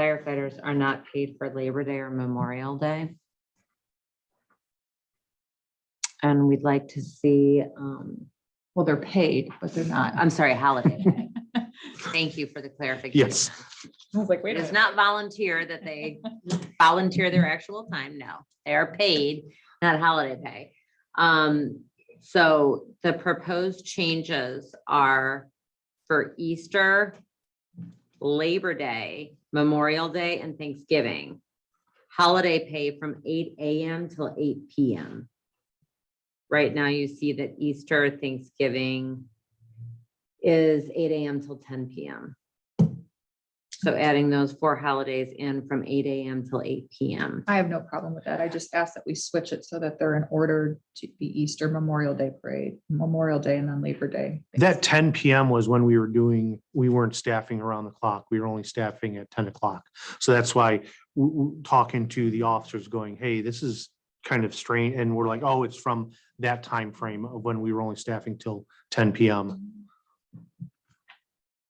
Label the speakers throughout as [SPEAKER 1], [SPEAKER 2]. [SPEAKER 1] firefighters are not paid for Labor Day or Memorial Day. And we'd like to see, um, well, they're paid, but they're not, I'm sorry, holiday. pay. Thank you for the clarification.
[SPEAKER 2] Yes.
[SPEAKER 3] I was like, wait
[SPEAKER 1] It
[SPEAKER 3] a
[SPEAKER 1] is not
[SPEAKER 3] minute.
[SPEAKER 1] volunteer that they volunteer their actual time. No, they are paid, not holiday pay. Um, so the proposed changes are for Easter, Labor Day, Memorial Day, and Thanksgiving. Holiday pay from eight AM till eight PM. Right now, you see that Easter, Thanksgiving is eight AM till ten PM. So adding those four holidays in from eight AM till eight PM.
[SPEAKER 3] I have no problem with that. I just ask that we switch it so that they're in order to be Easter Memorial Day Parade, Memorial Day and then Labor Day.
[SPEAKER 2] That ten PM was when we were doing, we weren't staffing around the clock. We were only staffing at ten o'clock. So that's why w- w- talking to the officers going, hey, this is kind of strange. And we're like, oh, it's from that time frame of when we were only staffing till ten PM.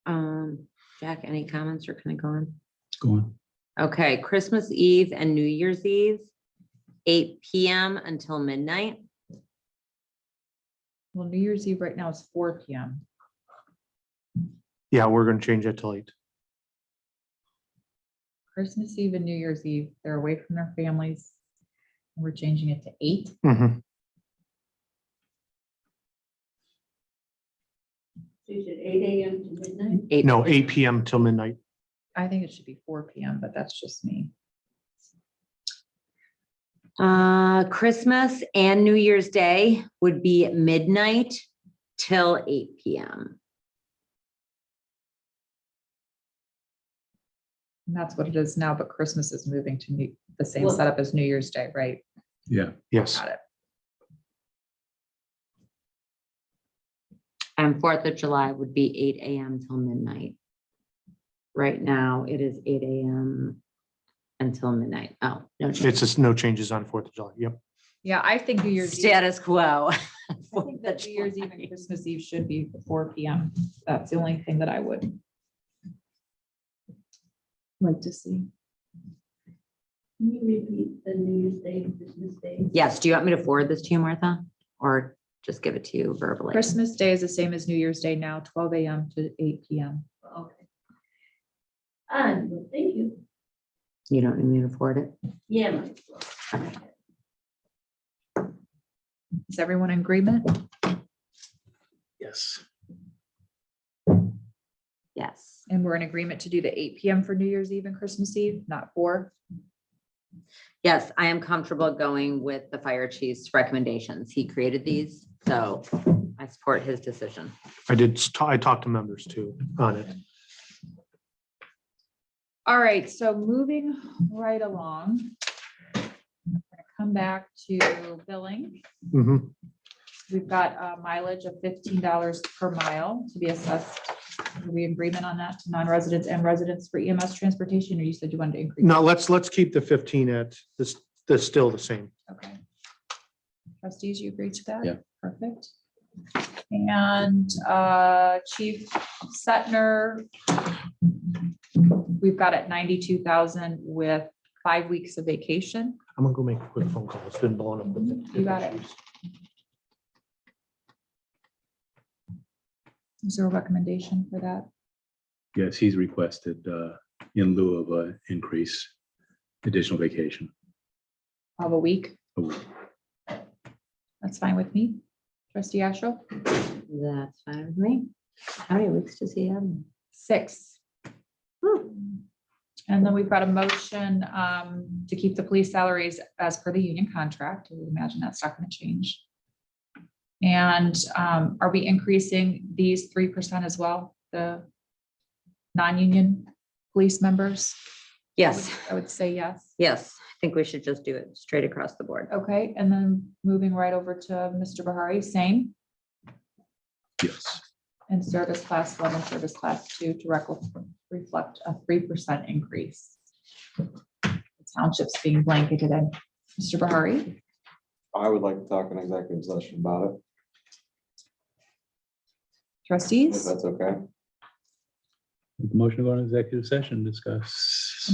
[SPEAKER 1] Um, Jack, any comments or can I go on?
[SPEAKER 4] Go on.
[SPEAKER 1] Okay, Christmas Eve and New Year's Eve, eight PM until midnight.
[SPEAKER 3] Well, New Year's Eve right now is four PM.
[SPEAKER 2] Yeah, we're gonna change that till eight.
[SPEAKER 3] Christmas Eve and New Year's Eve, they're away from their families. We're changing it to eight.
[SPEAKER 2] Mhm.
[SPEAKER 1] Eight-
[SPEAKER 2] No, eight PM till midnight.
[SPEAKER 3] I think it should be four PM, but that's just me.
[SPEAKER 1] Uh, Christmas and New Year's Day would be at midnight till eight PM.
[SPEAKER 3] And that's what it is now, but Christmas is moving to new- the same
[SPEAKER 1] Well-
[SPEAKER 3] setup as New Year's Day, right?
[SPEAKER 4] Yeah,
[SPEAKER 2] Yes.
[SPEAKER 3] Got it.
[SPEAKER 1] And Fourth of July would be eight AM till midnight. Right now, it is eight AM until midnight. Oh, no. change.
[SPEAKER 2] It's just no changes on Fourth of July. Yep.
[SPEAKER 3] Yeah, I think New Year's. Eve-
[SPEAKER 1] Status quo.
[SPEAKER 3] I think that New Year's Eve and Christmas Eve should be four PM. That's the only thing that I would like to see.
[SPEAKER 5] Can you repeat the New Year's Day and Christmas Day?
[SPEAKER 1] Yes, do you want me to forward this to you, Martha? Or just give it to you verbally?
[SPEAKER 3] Christmas Day is the same as New Year's Day now, twelve AM to eight PM.
[SPEAKER 5] Okay. And, well, Ah, thank you.
[SPEAKER 1] You don't need me to forward it?
[SPEAKER 5] Yeah. might as well.
[SPEAKER 3] Is everyone in agreement?
[SPEAKER 4] yes.
[SPEAKER 1] Yes.
[SPEAKER 3] And we're in agreement to do the eight PM for New Year's Eve and Christmas Eve, not four?
[SPEAKER 1] Yes, I am comfortable going with the fire chief's recommendations. He created these, so I support his decision.
[SPEAKER 2] I did, s- ta- I talked to members too on it.
[SPEAKER 3] All right, so moving right along. we're gonna Come back to billing.
[SPEAKER 2] Mhm.
[SPEAKER 3] We've got a mileage of fifteen dollars per mile to be assessed. Are we in agreement on that to non-residents and residents for EMS transportation, or you said you wanted to increase?
[SPEAKER 2] No, let's, let's keep the fifteen at, this, this still the same.
[SPEAKER 3] Okay. Trustees, you agree to that?
[SPEAKER 4] Yeah.
[SPEAKER 3] Perfect. And uh, Chief Setner, we've got it ninety-two thousand with five weeks of vacation.
[SPEAKER 2] I'm gonna go make a quick phone call. It's been blowing up. with the-
[SPEAKER 3] You got it. Is there a recommendation for that?
[SPEAKER 4] Yes, he's requested uh, in lieu of an increase, additional vacation. Oh,
[SPEAKER 3] Of a week?
[SPEAKER 4] a week.
[SPEAKER 3] That's fine with me. Trustee Astral?
[SPEAKER 1] That's fine with me. How many weeks does he have?
[SPEAKER 3] Six.
[SPEAKER 1] Hmm.
[SPEAKER 3] And then we've got a motion um, to keep the police salaries as per the union contract. I would imagine that's not going to change. And um, are we increasing these three percent as well, the non-union police members?
[SPEAKER 1] Yes,
[SPEAKER 3] I would say yes.
[SPEAKER 1] yes. I think we should just do it straight across the board.
[SPEAKER 3] Okay, and then moving right over to Mr. Bahari, same,
[SPEAKER 4] Yes,
[SPEAKER 3] and service class one and service class two to rec- reflect a three percent increase. The Townships being blanketed in. Mr. Bahari?
[SPEAKER 6] I would like to talk in executive session about it, if
[SPEAKER 3] Trustees?
[SPEAKER 6] that's okay.
[SPEAKER 4] motion to go on executive session, discuss.